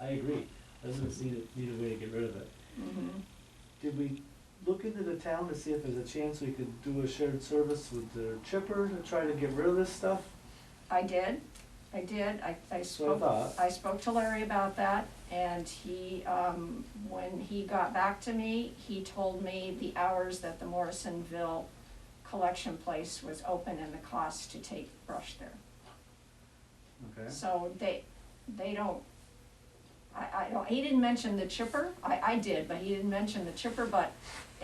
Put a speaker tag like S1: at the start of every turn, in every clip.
S1: I agree, residents need a, need a way to get rid of it.
S2: Mhm.
S1: Did we look into the town to see if there's a chance we could do a shared service with their chipper to try to get rid of this stuff?
S2: I did, I did, I, I
S1: That's what I
S2: spoke,
S1: thought.
S2: I spoke to Larry about that, and he, um, when he got back to me, he told me the hours that the Morrisonville collection place was open and the cost to take brush there.
S1: Okay.
S2: So they, they don't, I, I don't, he didn't mention the chipper, I, I did, but he didn't mention the chipper, but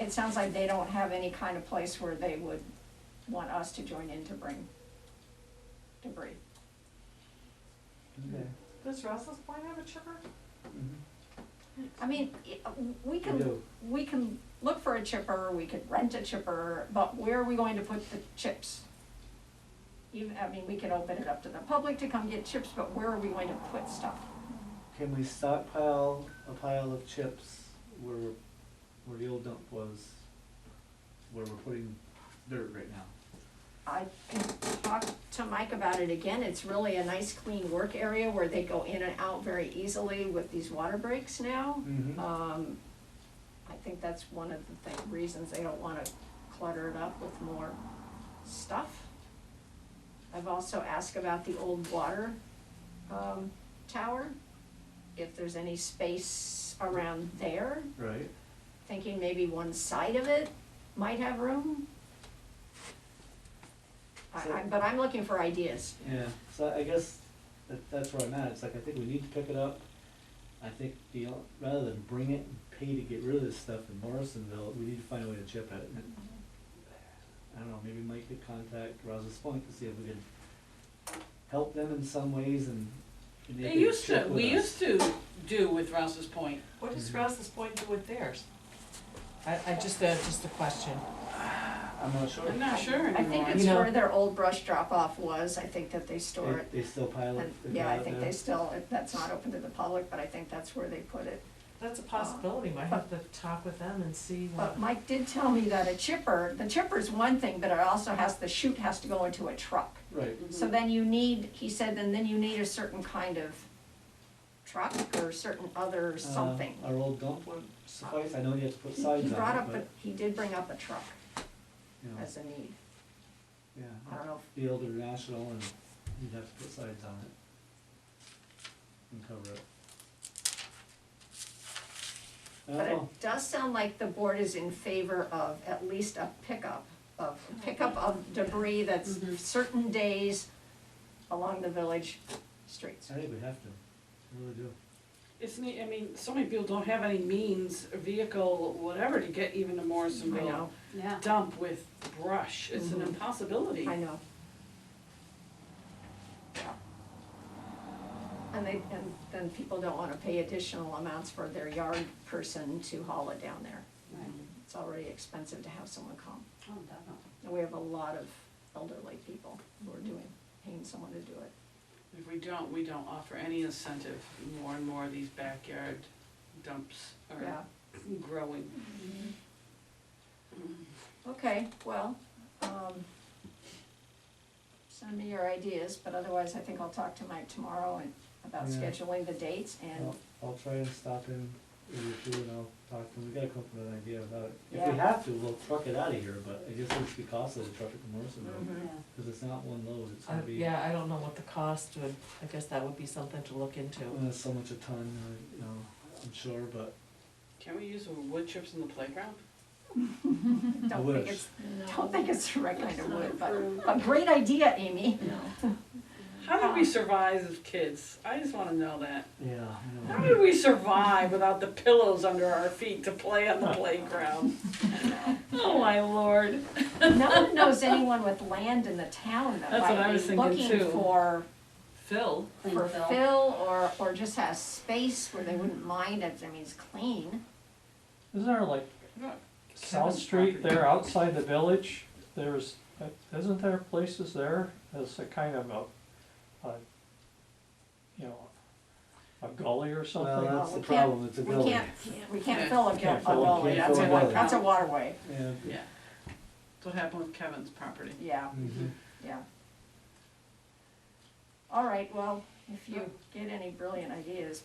S2: it sounds like they don't have any kind of place where they would want us to join in to bring debris.
S1: Okay.
S3: Does Russell's Point have a chipper?
S2: I mean, i- we
S1: Mm-hmm. We
S2: can,
S1: do.
S2: we can look for a chipper, we could rent a chipper, but where are we going to put the chips? Even, I mean, we could open it up to the public to come get chips, but where are we going to put stuff?
S1: Can we stockpile a pile of chips where, we're- where the old dump was, where we're putting dirt right now?
S2: I can talk to Mike about it again, it's really a nice clean work area where they go in and out very easily with these water breaks now.
S1: Mm-hmm.
S2: Um, I think that's one of the thing, reasons they don't wanna clutter it up with more stuff. I've also asked about the old water, um, tower, if there's any space around there,
S1: Right?
S2: thinking maybe one side of it might have room. I, I, but I'm looking for ideas.
S1: Yeah, so I guess that, that's where I'm at, it's like, I think we need to pick it up. I think the, o- rather than bring it and pay to get rid of this stuff in Morrisonville, we need to find a way to chip it. And I don't know, maybe Mike could contact Rouse's Point to see if we can help them in some ways and. and they
S4: They
S1: could
S4: used
S1: chip
S4: to,
S1: with
S4: we
S1: us.
S4: used to do with Rouse's Point.
S3: What does
S1: Mhm.
S3: Rouse's Point do with theirs? I, I just, uh, just a question.
S1: I'm not sure.
S4: I'm not sure
S2: I think
S4: anymore.
S2: it's
S3: You know-
S2: where their old brush drop off was, I think that they store it.
S1: They, they still pile it.
S2: And,
S1: they
S2: yeah,
S1: pile
S2: I
S1: it
S2: think
S1: there.
S2: they still, if that's not open to the public, but I think that's where they put it.
S3: That's a possibility, might have to talk with them and see what.
S2: But Mike did tell me that a chipper, the chipper's one thing, but it also has, the chute has to go into a truck.
S1: Right,
S4: Mm-hmm.
S2: So then you need, he said, then then you need a certain kind of truck or certain other
S1: Uh,
S2: something.
S1: Our old dump would suffice, I know you have to put
S2: He
S1: sides on it,
S2: he brought up,
S1: but,
S2: a- he did bring up a truck
S1: you know,
S2: as a need.
S1: yeah.
S2: I don't know,
S1: the old international and you'd have to put sides on it. And cover it. I
S2: but
S1: don't know,
S2: it does sound like the board is in favor of at least a pickup of, pickup of debris that's
S4: Mhm.
S2: certain days along the village streets.
S1: I think we have to, I really do.
S4: It's neat, I mean, so many people don't have any means, or vehicle, whatever, to get even to
S2: I know,
S4: Morrisonville.
S5: Yeah.
S4: Dump with brush, it's an
S2: Mhm.
S4: impossibility.
S2: I know. Yeah. And they, and then people don't wanna pay additional amounts for their yard person to haul it down there.
S5: Right.
S2: It's already expensive to have someone come.
S5: Oh, definitely.
S2: And we have a lot of elderly people who are doing, paying someone to do it.
S4: If we don't, we don't offer any incentive, more and more of these backyard dumps
S2: Yeah,
S4: are growing.
S2: Mm-hmm. okay, well, um, send me your ideas, but otherwise I think I'll talk to Mike tomorrow and about
S1: Yeah.
S2: scheduling the dates and,
S1: I'll, I'll try and stop in with you two and I'll talk to them, we gotta come up with an idea about it. If
S2: Yeah.
S1: we have to, we'll truck it out of here, but I guess it's be costly to truck it to Morrisonville,
S4: Hmm.
S2: Mhm.
S5: Yeah.
S1: cause it's not one load, it's
S3: I-
S2: Uh,
S1: gonna be,
S3: uh, Yeah, I don't know what the cost would, I guess that would be something to look into.
S1: uh, so much a ton, uh, you know, I'm sure, but
S4: Can we use wood chips in the playground?
S1: I
S2: don't think
S1: wish.
S2: it's, don't think it's the right kind of
S5: not
S2: wood, but
S5: approved.
S2: a great idea, Amy.
S4: How did we survive as kids? I just wanna know that.
S1: Yeah, I know.
S4: How did we survive without the pillows under our feet to play on the playground? Oh, my lord.
S2: No one knows anyone with land in the town that
S4: That's what I
S2: might
S4: was
S2: be
S4: thinking
S2: looking
S4: too.
S2: for,
S4: Phil,
S5: Clean
S2: for
S5: bill.
S2: fill or, or just has space where they wouldn't mind it, I mean, it's clean.
S6: Isn't there like South Street there outside the village? There's, isn't there places there as a kind of a, a, you know, a gully or something?
S1: Well, that's
S2: we
S1: the
S2: can't-
S1: problem, it's a
S2: We
S1: village.
S2: can't, we can't
S4: Yeah.
S2: fill a
S6: Can't
S2: gap, a
S6: fill a
S2: gully,
S1: gap.
S2: that's a,
S1: Can't fill a
S2: wa-
S1: gully.
S2: that's a waterway,
S1: Yeah,
S4: Yeah. That's what happened with Kevin's property.
S2: yeah,
S1: mhm.
S2: yeah. All right, well, if you get any brilliant ideas,